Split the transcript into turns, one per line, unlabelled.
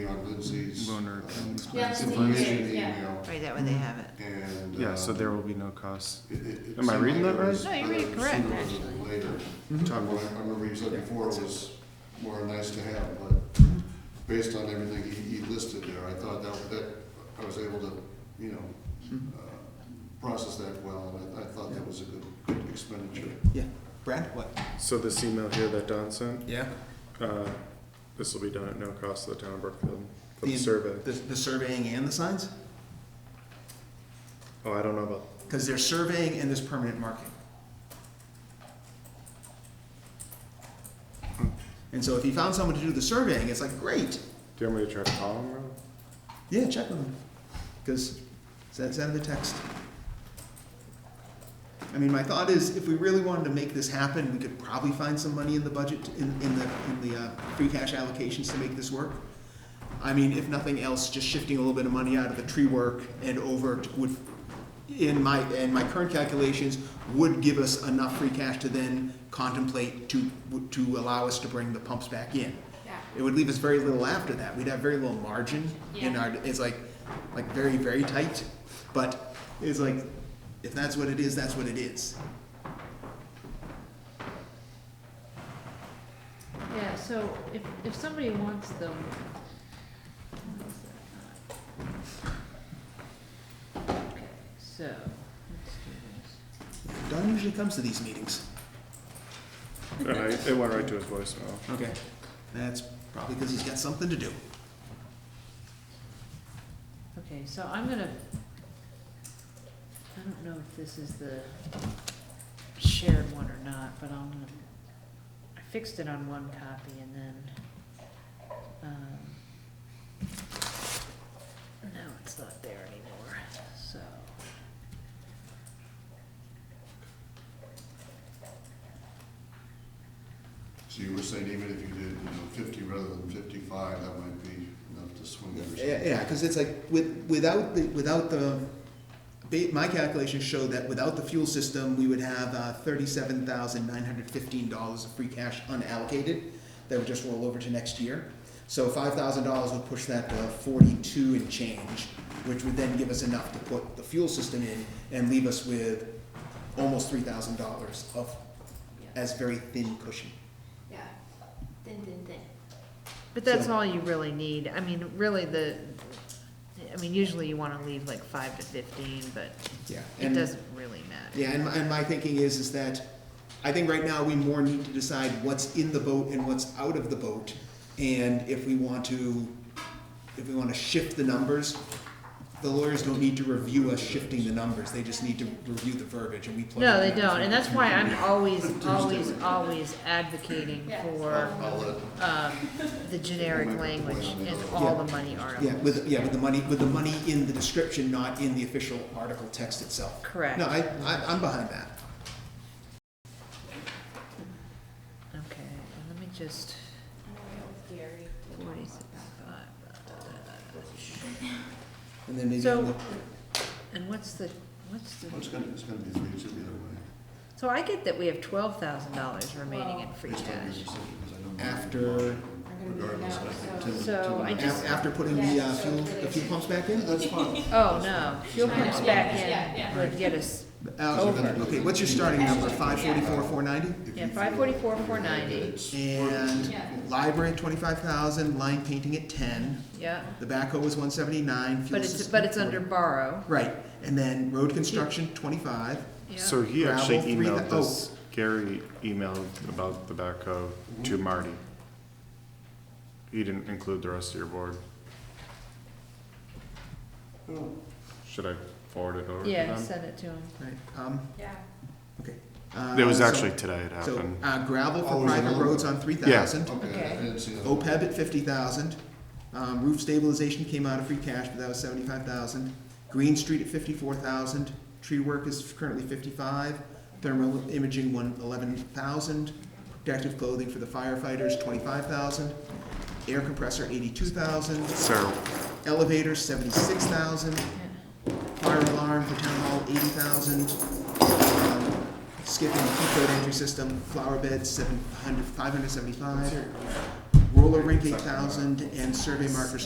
on Lindsay's
Loaner.
uh,
Yeah, Lindsay
information
did, yeah.
email,
Right, that way they have it.
and.
Yeah, so
uh,
there will be no cost.
it- it- it
Am I
seemed
reading
like
that
it was
right? No, you read it
better sooner
correct,
than
actually.
Later. Tom, what I I remember you said before it was more nice to have, but based on everything he, he listed there, I thought that, that, I was able to, you know,
Mm-hmm.
uh, process that well, and I, I thought that was a good, good expenditure.
Yeah. Brad, what?
So this email here that Don sent,
Yeah.
uh, this will be done at no cost to the town of Brookfield for
The-
the survey.
The, the surveying and the signs?
Oh, I don't know about,
Because there's surveying and there's permanent marking. And so if you found someone to do the surveying, it's like, great,
do you want me to try to call him? Rob?
yeah, check with them. Because send, send the text. I mean, my thought is, if we really wanted to make this happen, we could probably find some money in the budget, in, in the, in the, uh, free cash allocations to make this work. I mean, if nothing else, just shifting a little bit of money out of the tree work and over to- would, in my, in my current calculations, would give us enough free cash to then contemplate to, to allow us to bring the pumps back in.
Yeah.
It would leave us very little after that. We'd have very little margin in
Yeah.
our, it's like, like very, very tight. But it's like, if that's what it is, that's what it is.
Yeah, so if, if somebody wants them. where is that? Okay, So, let's do
Don usually comes to these meetings.
And I, it went right to his voicemail.
Okay. That's probably because he's got something to do.
this. Okay, so I'm gonna, I don't know if this is the shared one or not, but I'm gonna, I fixed it on one copy and then, um, no, it's not there anymore, so.
So you were saying even if you did, you know, fifty rather than fifty-five, that might be enough to swing it or something.
Yeah, because it's like, with, without the, without the, ba- my calculations show that without the fuel system, we would have uh, thirty-seven thousand nine hundred fifteen dollars of free cash unallocated that would just roll over to next year. So five thousand dollars would push that to forty-two and change, which would then give us enough to put the fuel system in and leave us with almost three thousand dollars of,
Yeah.
as very thin cushion.
Yeah. Ding, ding, ding.
But that's
So-
all you really need, I mean, really the, I mean, usually you wanna leave like five to fifteen, but
Yeah.
it doesn't really matter.
Yeah, and my, and my thinking is, is that I think right now we more need to decide what's in the boat and what's out of the boat. And if we want to, if we want to shift the numbers, the lawyers don't need to review us shifting the numbers, they just need to review the verbiage and we plug it
No, they
in.
don't, and that's why I'm always,
Tuesday.
always, always advocating
Yes.
for,
I'll let,
uh,
um, the generic language in all the money articles.
Yeah, with, yeah, with the money, with the money in the description, not in the official article text itself.
Correct.
No, I, I, I'm behind that.
Okay, and let me just,
I don't know if Gary would want
forty-six,
that.
five.
And then maybe.
So-
on the-
And what's the, what's the,
well, it's gonna, it's gonna be three, two either way.
so I get that we have twelve thousand dollars remaining in free
Based on your
cash.
decision, 'cause I know mine-
After-
I'm gonna do it
Regardless, I
now,
think
so.
Tim.
So
Tim and
I
have
just-
af- After putting the, uh, fuel, the fuel pumps back in?
Yeah, that's fine.
Oh, no, fuel pumps back
Yeah, yeah.
in would get us,
Uh,
So then-
okay, what's your starting number, five forty-four, four ninety?
If
Yeah,
you feel-
544,
if you feel that
490.
it's-
And
Yeah.
library at twenty-five thousand, line painting at ten,
yeah,
the backhoe was one seventy-nine.
but it's, but it's under borrow,
Right, and then road construction, twenty-five,
yeah.
So he
Gravel,
actually
three
emailed
thou- oh. Mm-hmm.
this, Gary emailed about the backhoe to Marty. He didn't include the rest of your board.
Oh,
Should I forward it over to
Yeah,
them?
send it to him.
right, um,
Yeah.
okay.
It was
Uh, so-
actually today it
So,
happened.
uh, gravel for
Always
private
another.
roads on three thousand.
Okay,
Okay.
I didn't see that.
OPEB at fifty thousand, um, roof stabilization came out of free cash, but that was seventy-five thousand. Green Street at fifty-four thousand, tree work is currently fifty-five, thermal imaging one eleven thousand, protective clothing for the firefighters twenty-five thousand, air compressor eighty-two thousand,
So,
elevator seventy-six thousand, fire alarm for town hall eighty thousand, Um, skipping key code entry system, flower beds seven hundred, five hundred seventy-five, roller rink eight thousand, and survey markers